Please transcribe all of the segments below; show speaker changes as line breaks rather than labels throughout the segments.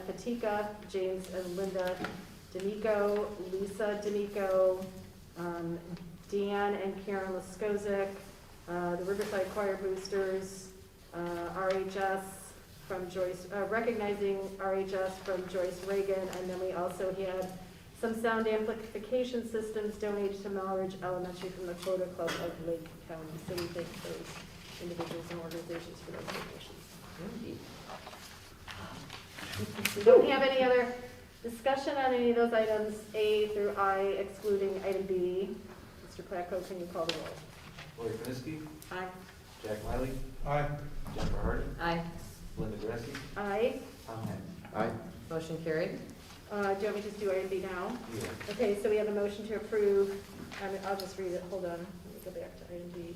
Fatika, James and Linda D'Amico, Lisa D'Amico, um, Deanne and Karen Laskozic, uh, the Riverside Choir Boosters, uh, RHS from Joyce, uh, recognizing RHS from Joyce Reagan, and then we also had some sound amplification systems donated to Melridge Elementary from the Quota Club of Lake County. So we thank those individuals and organizations for those donations. We don't have any other discussion on any of those items, A through I excluding item B. Mr. Placco, can you call the roll?
Lori Krenski,
Aye.
Jack Miley,
Aye.
Jennifer Harden,
Aye.
Linda Grassi,
Aye.
Tom Henn.
Aye.
Motion carried.
Uh, do you want me to just do item B now?
Yeah.
Okay, so we have a motion to approve, I mean, I'll just read it, hold on, let me go back to item B.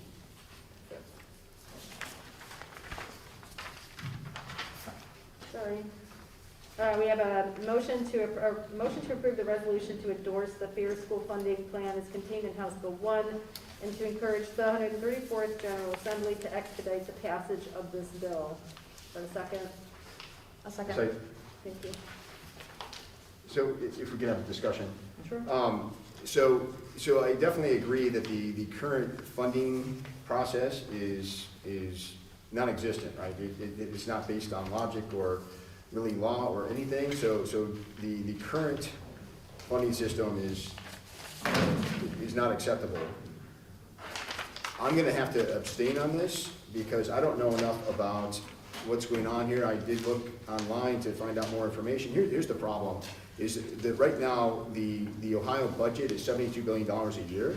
Sorry. Uh, we have a motion to, a motion to approve the resolution to endorse the fair school funding plan as contained in House Bill one and to encourage the hundred and thirty-fourth General Assembly to expedite the passage of this bill. For a second? A
So,
Thank you.
so i- if we can have a discussion.
Sure.
Um, So, so I definitely agree that the, the current funding process is, is non-existent, right? It, it- it's not based on logic or really law or anything, so, so the, the current funding system is, is not acceptable. I'm gonna have to abstain on this because I don't know enough about what's going on here. I did look online to find out more information. Here, here's the problem, is that right now, the, the Ohio budget is seventy-two billion dollars a year.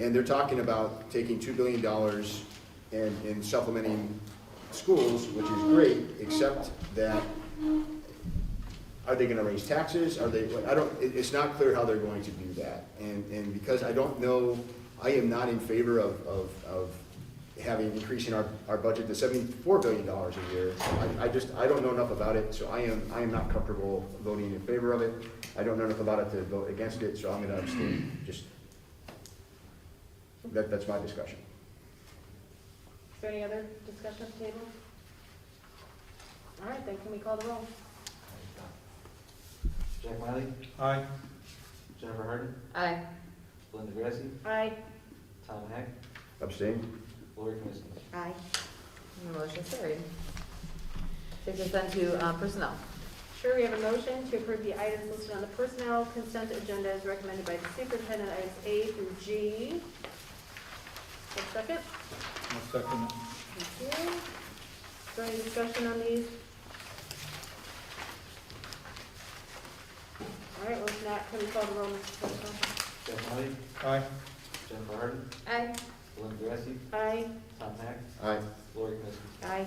And they're talking about taking two billion dollars and, and supplementing schools, which is great, except that are they gonna raise taxes? Are they, I don't, it, it's not clear how they're going to do that. And, and because I don't know, I am not in favor of, of, of having, increasing our, our budget to seventy-four billion dollars a year. I, I just, I don't know enough about it, so I am, I am not comfortable voting in favor of it. I don't know enough about it to vote against it, so I'm gonna abstain, just, that, that's my discussion.
Is there any other discussion at the table? All right, then can we call the roll?
Jack Miley,
Aye.
Jennifer Harden,
Aye.
Linda Grassi,
Aye.
Tom Heck,
Abstain?
Lori Krenski.
Aye.
Motion carried. Takes us then to uh, personnel.
Sure, we have a motion to approve the items listed on the personnel consent agenda as recommended by the superintendent, items A through G. One second.
I'll second it.
Thank you. Is there any discussion on these? All right, well, if not, can we call the roll, Mr. Postma?
Jack Miley,
Aye.
Jennifer Harden,
Aye.
Linda Grassi,
Aye.
Tom Heck,
Aye.
Lori Krenski.
Aye.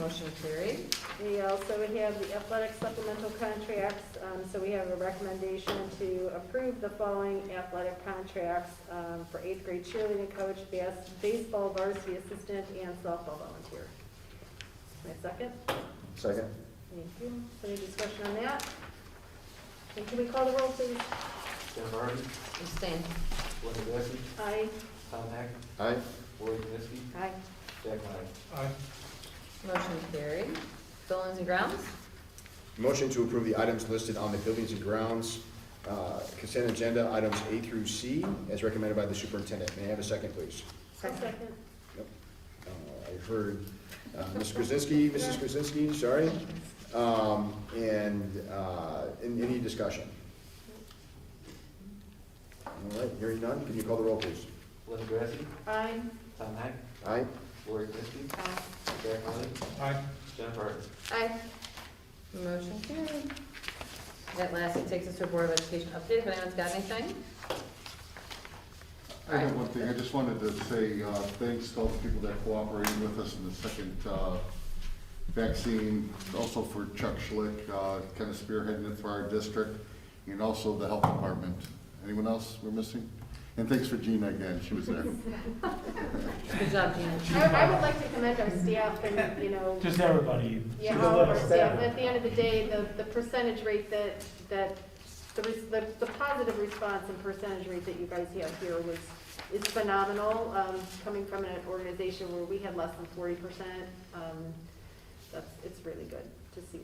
Motion carried.
We also have the athletic supplemental contracts, um, so we have a recommendation to approve the following athletic contracts um, for eighth grade cheerleading coach, bas- baseball varsity assistant, and softball volunteer. My second,
Second?
thank you. Any discussion on that? And can we call the roll, please?
Jennifer Harden,
Abstain.
Linda Grassi,
Aye.
Tom Heck,
Aye.
Lori Krenski,
Aye.
Jack Miley.
Aye.
Motion carried. Buildings and grounds?
Motion to approve the items listed on the buildings and grounds uh, consent agenda, items A through C, as recommended by the superintendent. May I have a second, please?
Second.
Uh, I heard uh, Ms. Krasinski, Mrs. Krasinski, sorry. Um, And uh, in- any discussion? All right, hearing none, can you call the roll, please?
Linda Grassi,
Aye.
Tom Heck,
Aye?
Lori Krenski,
Aye.
Jack Miley,
Aye.
Jennifer Harden.
Aye. Motion carried. That lastly takes us to a Board of Education update. If anyone's got anything?
I have one thing, I just wanted to say, uh, thanks to all the people that cooperated with us in the second, uh, vaccine, also for Chuck Schlick, uh, kind of spearheading it for our district, and also the health department. Anyone else we're missing? And thanks for Gina again, she was there.
Good job, Gina.
I I would like to commend our staff and, you know,
Just everybody.
Yeah,
To the
however,
left.
yeah, at the end of the day, the, the percentage rate that, that, the, res- the, the positive response and percentage rate that you guys have here was, is phenomenal, um, coming from an organization where we had less than forty percent, um, that's, it's really good to see that.